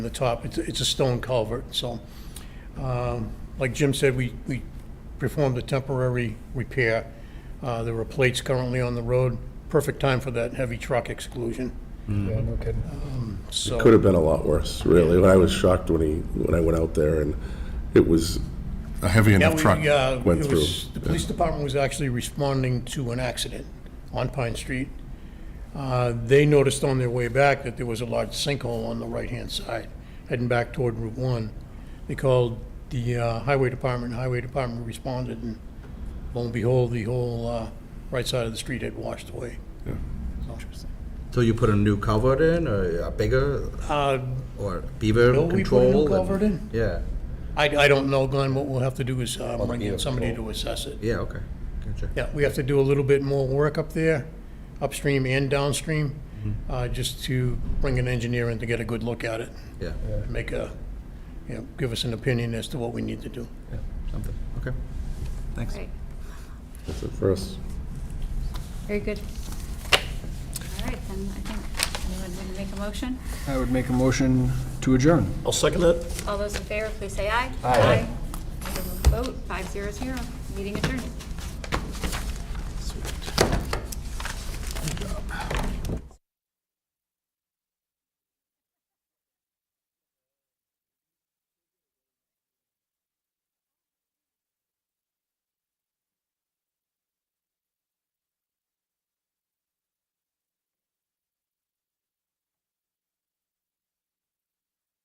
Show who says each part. Speaker 1: on the top. It's, it's a stone culvert, so, um, like Jim said, we, we performed a temporary repair. Uh, There were plates currently on the road. Perfect time for that heavy truck exclusion,
Speaker 2: Yeah, no kidding.
Speaker 1: so.
Speaker 3: Could have been a lot worse, really. When I was shocked when he, when I went out there and it was a heavy
Speaker 1: Yeah,
Speaker 3: enough
Speaker 1: we,
Speaker 3: truck
Speaker 1: uh,
Speaker 3: went
Speaker 1: it
Speaker 3: through.
Speaker 1: was- The police department was actually responding to an accident on Pine Street. Uh, They noticed on their way back that there was a large sinkhole on the right-hand side, heading back toward Route 1. They called the uh, highway department, highway department responded, and lo and behold, the whole uh, right side of the street had washed away. So-
Speaker 4: So you put a new culvert in, or a bigger,
Speaker 1: Uh,
Speaker 4: or beaver
Speaker 1: Will we put
Speaker 4: control?
Speaker 1: a new
Speaker 4: and-
Speaker 1: culvert in?
Speaker 4: Yeah,
Speaker 1: I I don't know, Glenn, what we'll have to do is uh, bring in
Speaker 2: beaver
Speaker 1: somebody to assess it.
Speaker 4: yeah, okay, gotcha.
Speaker 1: Yeah, we have to do a little bit more work up there, upstream and downstream, uh, just to bring an engineer in to get a good look at it,
Speaker 4: Yeah,
Speaker 1: and make a, you know, give us an opinion as to what we need to do.
Speaker 4: something, okay. Thanks.
Speaker 5: Right,
Speaker 3: That's it for us.
Speaker 5: very good. All right, then, I think, anyone want to make a motion?
Speaker 2: I would make a motion to adjourn.
Speaker 1: I'll second that.
Speaker 5: All those in favor, please say aye.
Speaker 2: Aye.
Speaker 5: Aye. Vote, five zero zero, meeting adjourned.